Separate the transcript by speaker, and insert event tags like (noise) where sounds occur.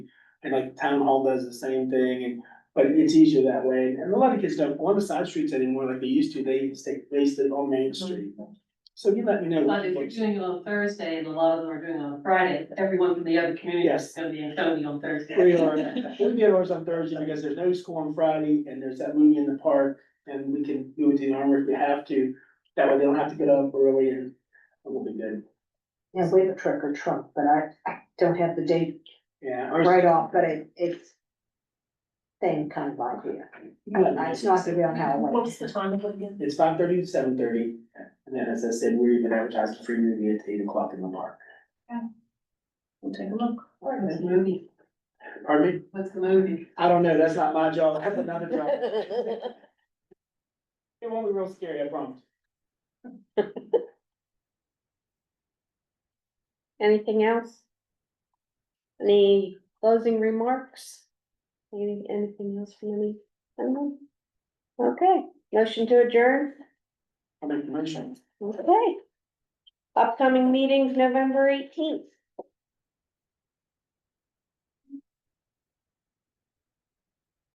Speaker 1: And like town hall does the same thing and, but it's easier that way. And a lot of kids don't go on the side streets anymore like they used to. They stay wasted on Main Street. So you let me know. what
Speaker 2: But if you're
Speaker 1: folks-
Speaker 2: doing it on Thursday and a lot of them are doing it on Friday, everyone from the other community is
Speaker 1: Yes.
Speaker 2: gonna be in Tony on Thursday.
Speaker 1: We are, we get ours on Thursday because there's no school on Friday and there's that movie in the park and we can do it to the armor if we have to. That way they don't have to get up early and it will be good.
Speaker 3: Yeah, we have a trick or trunk, but I, I don't have the date
Speaker 1: Yeah. ours-
Speaker 3: right off, but it, it's same kind of idea. It's not the real
Speaker 4: What
Speaker 3: Halloween.
Speaker 4: was the time of it again?
Speaker 1: It's five thirty to seven thirty, and then as I said, we're even advertising free movie at eight o'clock in the park.
Speaker 4: We'll take a look.
Speaker 2: What's the movie?
Speaker 1: Pardon me?
Speaker 2: What's the movie?
Speaker 1: I don't know, that's not my job, that's
Speaker 4: (laughs)
Speaker 1: another job. It won't be real scary, I promise.
Speaker 5: Anything else? Any closing remarks? Any, anything else from any? anyone? Okay, motion to adjourn,
Speaker 1: I'll make the motion.
Speaker 5: okay. Upcoming meetings, November eighteenth,